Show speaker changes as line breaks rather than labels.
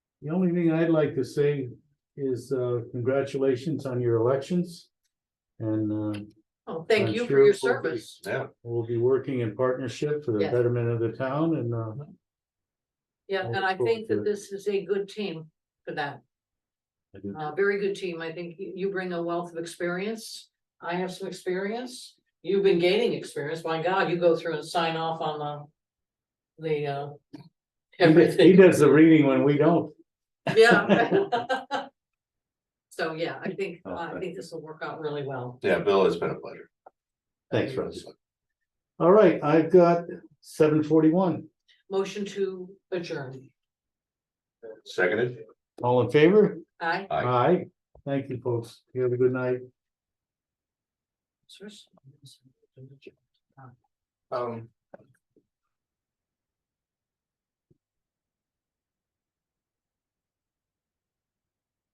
The only thing I'd like to say is, uh, congratulations on your elections. And, uh,
Oh, thank
I'm
you for
sure
your
we'll be-
service.
Yeah.
We'll be working in partnership for the
Yes.
betterment of the town and, uh,
Yeah,
Look
and I
forward
think
to
that
it.
this is a good team for that.
I do.
A very good team. I think you, you bring a wealth of experience. I have some experience. You've been gaining experience. My God, you go through and sign off on the, the, uh,
he does- he
everything.
does the reading when we don't.
Yeah. So, yeah, I think, I
Okay.
think this will work out really well.
Yeah, Bill, it's been a pleasure.
Thanks, Roger. All right, I've got seven forty-one.
Motion to adjourn.
Seconded?
All in favor?
Aye.
Aye.
Aye. Thank you, folks. You have a good night.
Um,